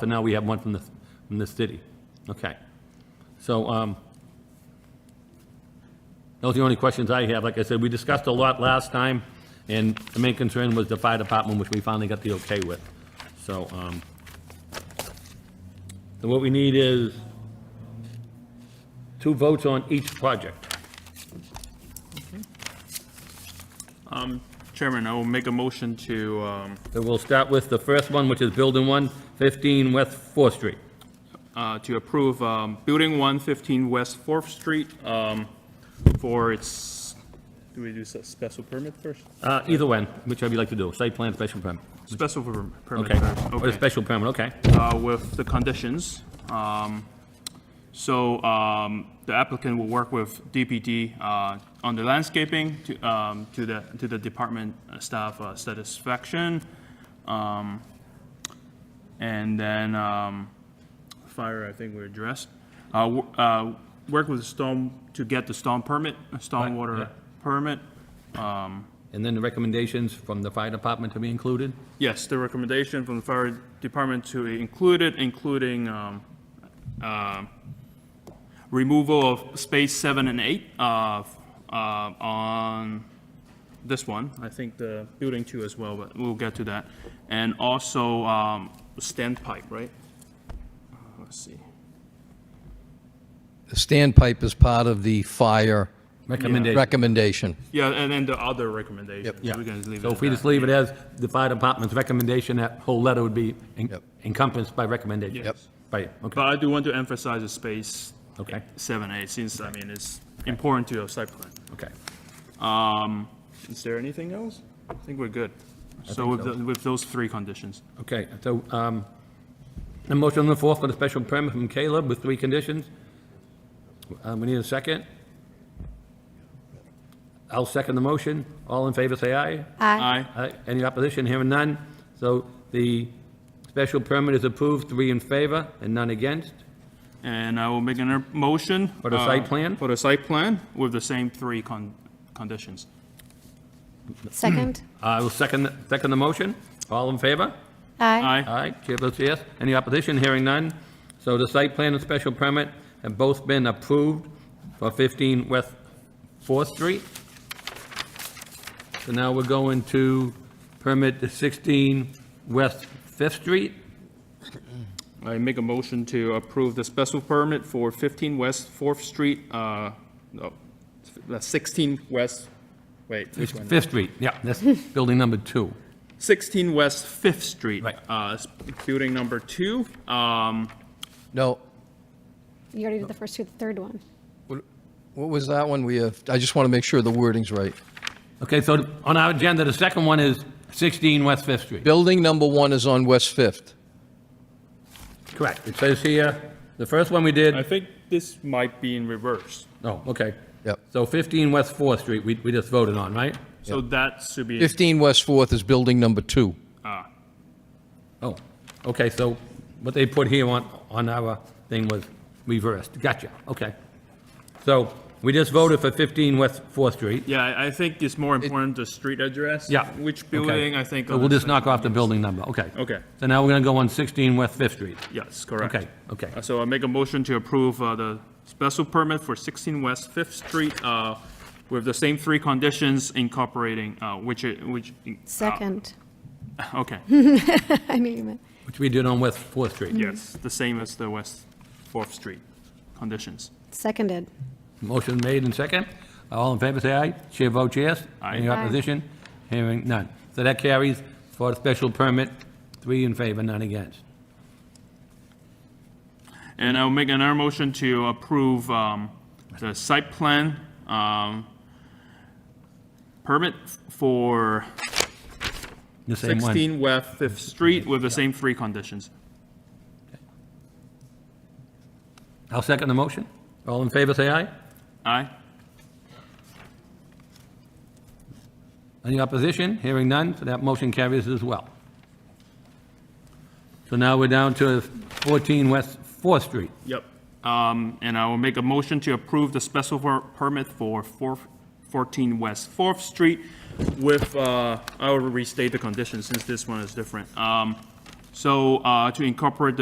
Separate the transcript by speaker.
Speaker 1: For now, we have one from the, from the city. Okay. So, um, those are the only questions I have. Like I said, we discussed a lot last time, and the main concern was the fire department, which we finally got the okay with. So, um, so what we need is two votes on each project.
Speaker 2: Chairman, I will make a motion to, um,
Speaker 1: So we'll start with the first one, which is Building 1, 15 West Fourth Street.
Speaker 2: uh, to approve um, Building 115 West Fourth Street um, for its, do we do s- special permit first?
Speaker 1: Uh, Either one, whichever you like to do, site plan, special permit.
Speaker 2: Special per- permit
Speaker 1: Okay,
Speaker 2: first.
Speaker 1: or a special permit, okay.
Speaker 2: uh, with the conditions. Um, So um, the applicant will work with DPD uh, on the landscaping to um, to the, to the department staff uh, satisfaction. Um, And then um, fire, I think we're addressed. Uh, w- uh, Work with storm, to get the storm permit,
Speaker 1: yeah.
Speaker 2: stormwater permit.
Speaker 1: And then the recommendations from the fire department to be included?
Speaker 2: Yes, the recommendation from the fire department to include it, including um, um, removal of space seven and eight uh, f- uh, on this one. I think the building two as well, but we'll get to that. And also um, standpipe, right? Uh, Let's see.
Speaker 3: The standpipe is part of the fire
Speaker 1: Recommendation,
Speaker 3: recommendation.
Speaker 2: Yeah, and then the other recommendation.
Speaker 1: yeah.
Speaker 2: We're gonna leave it
Speaker 1: So
Speaker 2: at
Speaker 1: if we
Speaker 2: that.
Speaker 1: just leave it as the fire department's recommendation, that whole letter would be en-
Speaker 3: Yep.
Speaker 1: encompassed by recommendation?
Speaker 2: Yep.
Speaker 1: By, okay,
Speaker 2: But I do want to emphasize the space
Speaker 1: Okay.
Speaker 2: seven, eight, since, I mean, it's important to your site plan.
Speaker 1: okay.
Speaker 2: Um, is there anything else? I think we're good. So with,
Speaker 1: so.
Speaker 2: the- with those three conditions.
Speaker 1: Okay, so, um, a motion on the floor for the special permit from Caleb with three conditions. Uh, we need a second. I'll second the motion. All in favor, say aye.
Speaker 4: Aye.
Speaker 2: Aye.
Speaker 1: Aye. Any opposition? Hearing none. So the special permit is approved, three in favor and none against.
Speaker 2: And I will make a motion.
Speaker 1: For the
Speaker 2: uh,
Speaker 1: site plan?
Speaker 2: For the site plan with the same three con, conditions.
Speaker 4: Second?
Speaker 1: I will second, second the motion. All in favor?
Speaker 4: Aye.
Speaker 2: Aye.
Speaker 1: Aye, chair votes yes. Any opposition? Hearing none. So the site plan and special permit have both been approved for 15 West Fourth Street. So now we're going to permit the 16 West Fifth Street.
Speaker 2: I make a motion to approve the special permit for 15 West Fourth Street, uh, no, that's 16 West, wait, which one?
Speaker 1: Fifth Street, yeah, that's building number two.
Speaker 2: 16 West Fifth Street.
Speaker 1: Right.
Speaker 2: Uh, it's building number two. Um,
Speaker 3: No,
Speaker 4: You already did the first two, the third one.
Speaker 3: what what was that one we have? I just want to make sure the wording's right.
Speaker 1: Okay, so on our agenda, the second one is 16 West Fifth Street.
Speaker 3: Building number one is on West Fifth.
Speaker 1: Correct. It says here, the first one we did,
Speaker 2: I think this might be in reverse.
Speaker 1: oh, okay.
Speaker 3: Yep.
Speaker 1: So 15 West Fourth Street, we, we just voted on, right?
Speaker 2: So that should be.
Speaker 3: 15 West Fourth is building number two.
Speaker 1: Oh, okay, so what they put here on, on our thing was reversed. Gotcha, okay. So we just voted for 15 West Fourth Street.
Speaker 2: Yeah, I- I think it's more important the street address.
Speaker 1: Yeah.
Speaker 2: Which
Speaker 1: okay.
Speaker 2: building, I think.
Speaker 1: So We'll just knock off the building number, okay.
Speaker 2: Okay.
Speaker 1: So now we're gonna go on 16 West Fifth Street.
Speaker 2: Yes, correct.
Speaker 1: Okay, okay.
Speaker 2: Uh, So I make a motion to approve uh, the special permit for 16 West Fifth Street uh, with the same three conditions incorporating, uh, which, it- which. uh,
Speaker 4: Second.
Speaker 2: Okay,
Speaker 4: I knew you meant.
Speaker 1: Which we did on West Fourth Street.
Speaker 2: yes, the same as the West Fourth Street conditions.
Speaker 4: Seconded.
Speaker 1: Motion made and second. All in favor, say aye. Chair votes yes.
Speaker 2: Aye.
Speaker 1: Any
Speaker 4: Aye.
Speaker 1: opposition? Hearing none. So that carries for the special permit, three in favor, none against.
Speaker 2: And I'll make another motion to approve um, the site plan um, permit for
Speaker 1: The same one.
Speaker 2: 16 West Fifth Street with the same three conditions.
Speaker 1: I'll second the motion. All in favor, say aye.
Speaker 2: Aye?
Speaker 1: Any opposition? Hearing none, so that motion carries as well. So now we're down to 14 West Fourth Street.
Speaker 2: Yep. Um, and I will make a motion to approve the special per- permit for four- 14 West Fourth Street with, uh, I will restate the conditions since this one is different. Um, so, uh, to incorporate the